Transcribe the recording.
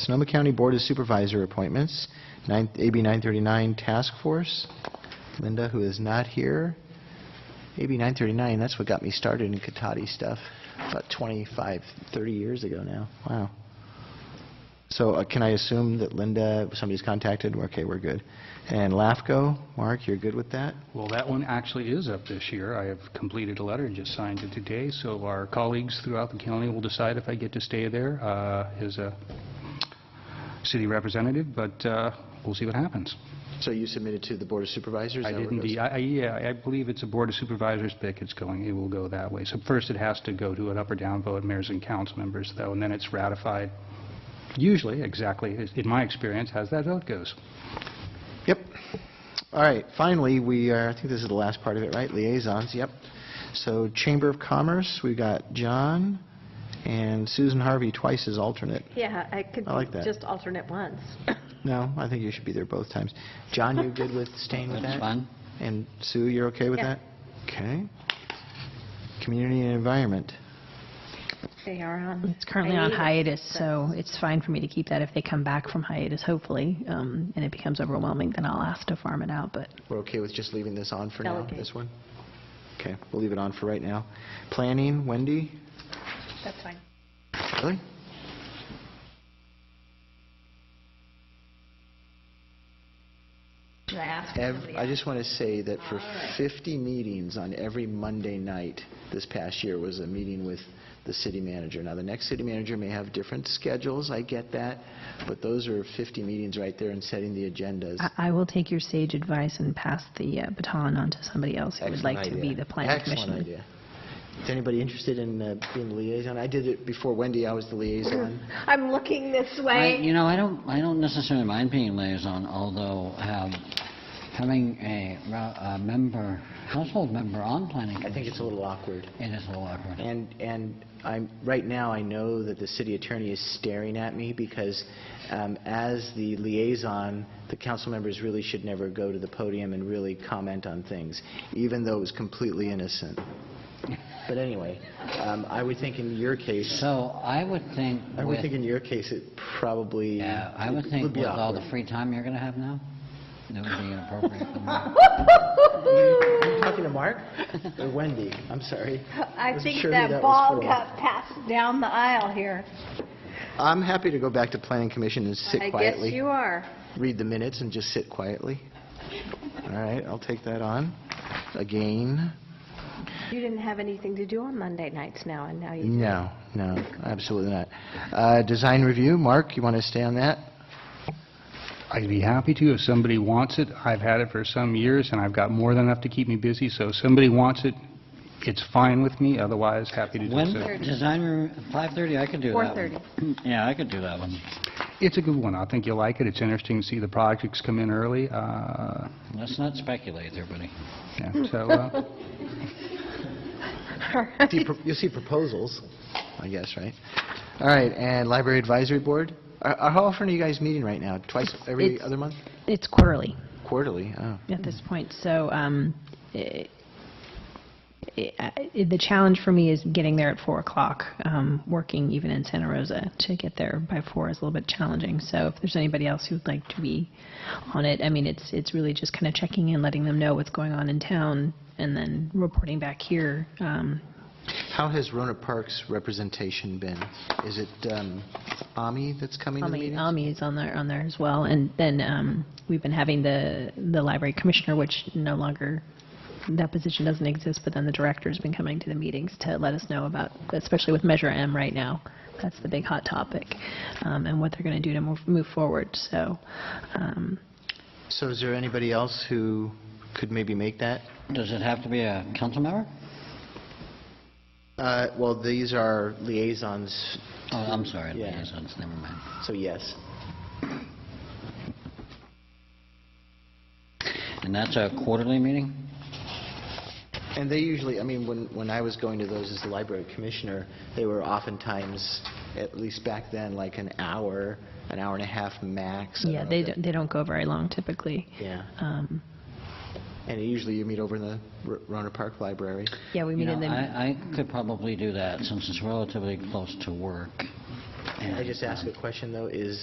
Sonoma County Board of Supervisor appointments, nine- AB 939 Task Force. Linda, who is not here. AB 939, that's what got me started in Katati stuff about 25, 30 years ago now. Wow. So uh, can I assume that Linda, somebody's contacted? Okay, we're good. And LAFCO, Mark, you're good with that? Well, that one actually is up this year. I have completed a letter and just signed it today, so our colleagues throughout the county will decide if I get to stay there uh, as a city representative, but uh, we'll see what happens. So you submitted to the Board of Supervisors? I Is that where it didn't, goes? de- I- I- yeah, I believe it's a Board of Supervisors pick, it's going, it will go that way. So first, it has to go to an up or down vote, mayors and council members, though, and then it's ratified, usually, exactly, is- in my experience, as that vote goes. Yep. All right, finally, we are, I think this is the last part of it, right? Liaisons, yep. So Chamber of Commerce, we got John and Susan Harvey twice as alternate. Yeah, I could I like that. just alternate once. No, I think you should be there both times. John, you good with staying with that? And Sue, you're okay with Yeah. that? Okay. Community and Environment. They are on. It's currently on hiatus, but- so it's fine for me to keep that if they come back from hiatus, hopefully, um, and it becomes overwhelming, then I'll ask to farm it out, but We're okay with just leaving this on for now, Delegate. this one? Okay, we'll leave it on for right now. Planning, Wendy? That's fine. Really? Should I ask for Ev- somebody I else? just want to say that for 50 meetings on every Monday night this past year was a meeting with the city manager. Now, the next city manager may have different schedules, I get that, but those are 50 meetings right there and setting the agendas. I- I will take your sage advice and pass the uh, baton on to somebody else who would Excellent like to idea. be the planning commissioner. Excellent idea. Is anybody interested in uh, being the liaison? I did it before Wendy, I was the liaison. I'm looking this I- way. You know, I don't, I don't necessarily mind being liaison, although um, having a ra- a member, household member on planning I think commission, it's a little awkward. it is a little awkward. And, and I'm, right now, I know that the city attorney is staring at me because um, as the liaison, the council members really should never go to the podium and really comment on things, even though it was completely innocent. But anyway, um, I would think in your case, So I would think I would think with, in your case, it probably yeah, I would it think be with all awkward. the free time you're going to have now, that would be inappropriate. for me. Are you talking to Mark or Wendy? I'm sorry. I was think sure that was ball full. got passed down the aisle here. I'm happy to go back to planning commission and sit I guess quietly. you are. read the minutes and just sit quietly. All right, I'll take that on. Again, You didn't have anything to do on Monday nights now, and now you... no, no, absolutely not. Uh, Design review, Mark, you want to stay on that? I'd be happy to if somebody wants it. I've had it for some years, and I've got more than enough to keep me busy, so if somebody wants it, it's fine with me, otherwise, happy to do When, so. design, room- 5:30, I could do that one. 4:30. Yeah, I could do that one. It's a good one. I think you'll like it. It's interesting to see the projects come in early. uh, Let's not speculate, everybody. yeah, So, uh, See pro- You'll see proposals, I guess, right? All right, and library advisory board? Are- are- How often are you guys meeting right now? Twice every It's- other month? It's quarterly. Quarterly, oh. at this point. So um, i- i- I- the challenge for me is getting there at 4 o'clock, um, working even in Santa Rosa. To get there by 4 is a little bit challenging. So if there's anybody else who'd like to be on it, I mean, it's, it's really just kind of checking in, letting them know what's going on in town, and then reporting back here. Um, How has Rona Park's representation been? Is it um, Ami that's coming to the Ami, um meetings? Ami is on there, on there as well. And then um, we've been having the, the library commissioner, which no longer, that position doesn't exist, but then the director's been coming to the meetings to let us know about, especially with Measure M right now. That's the big hot topic, um, and what they're going to do to move, move forward. So, um, So is there anybody else who could maybe make that? Does it have to be a council member? Uh, Well, these are liaisons, Oh, I'm sorry, Yeah. liaisons, never mind. so yes. And that's a quarterly meeting? And they usually, I mean, when, when I was going to those as the library commissioner, they were oftentimes, at least back then, like an hour, an hour and a half max. I yeah, know they if don't, they don't go very long typically. Yeah, Um, and usually you meet over in the R- Rona Park Library. Yeah, we You meet know, in the, I, I could probably do that, since it's relatively close to work. Can I just ask a question, though, is